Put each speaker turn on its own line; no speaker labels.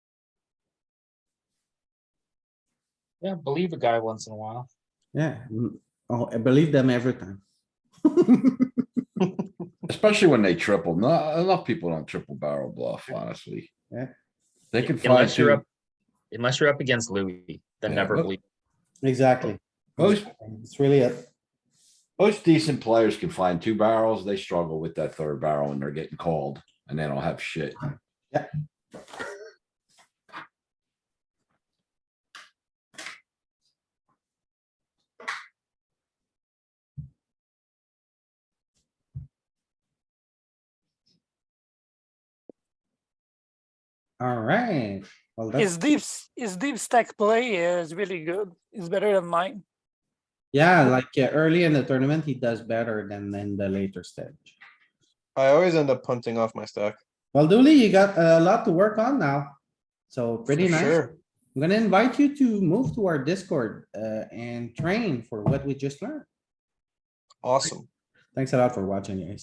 Yeah, believe a guy once in a while.
Yeah, mm, oh, I believe them every time.
Especially when they triple. Not enough people don't triple barrel bluff, honestly.
Yeah.
They can find
Unless you're
two.
up, unless you're up against Louis, then
Yeah,
never
look-
believe.
Exactly.
Most,
It's really it.
most decent players can find two barrels. They struggle with that third barrel and they're getting called and they don't have shit.
Alright, well, that's,
His deep, s- his deep stack play is really good. It's better than mine.
yeah, like yeah, early in the tournament, he does better than in the later stage.
I always end up punting off my stack.
Well, Dooley, you got a lot to work on now. So pretty
for
nice.
sure.
I'm gonna invite you to move to our Discord, uh, and train for what we just learned.
Awesome.
Thanks a lot for watching, guys.